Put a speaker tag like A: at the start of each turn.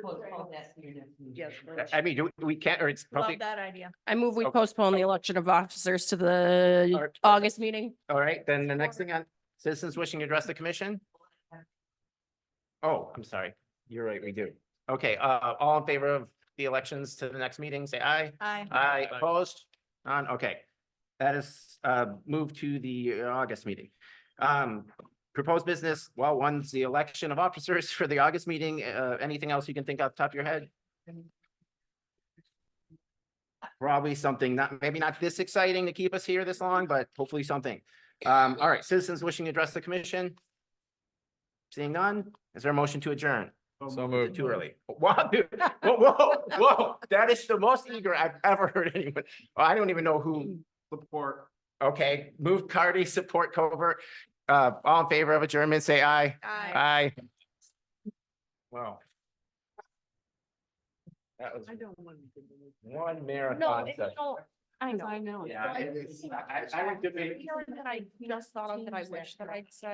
A: postpone that to your next meeting.
B: Yes,
C: I mean, do- we can't, or it's
D: Love
C: probably,
D: that idea.
E: I move we
C: Okay.
E: postpone the election of officers to
C: All
E: the
C: right.
E: August meeting.
C: all right, then the next thing on citizens wishing to address the commission? Oh, I'm sorry. You're right, we do. Okay, uh, all in favor of the elections to the next meeting, say aye.
D: Aye.
C: Aye, opposed? None, okay. That is, uh, moved to the uh, August meeting. Um, proposed business, well, one's the election of officers for the August meeting. Uh, anything else you can think off the top of your head? Probably something not, maybe not this exciting to keep us here this long, but hopefully something. Um, all right, citizens wishing to address the commission? Seeing none, is there a motion to adjourn?
F: So
C: Is it
F: moved.
C: Too early. Wow, dude. Whoa, whoa, whoa. That is the most eager I've ever heard anyone. I don't even know who. Support. Okay, move Cardy, support Covert. Uh, all in favor of adjournment, say aye.
D: Aye.
C: Aye. Wow. That was
B: don't want to.
C: one
E: No,
C: marathon
E: it's
C: session.
E: no, I know.
B: know.
C: Yeah, it is. I, I would debate.
E: You know that I just thought of that I wish that I'd said.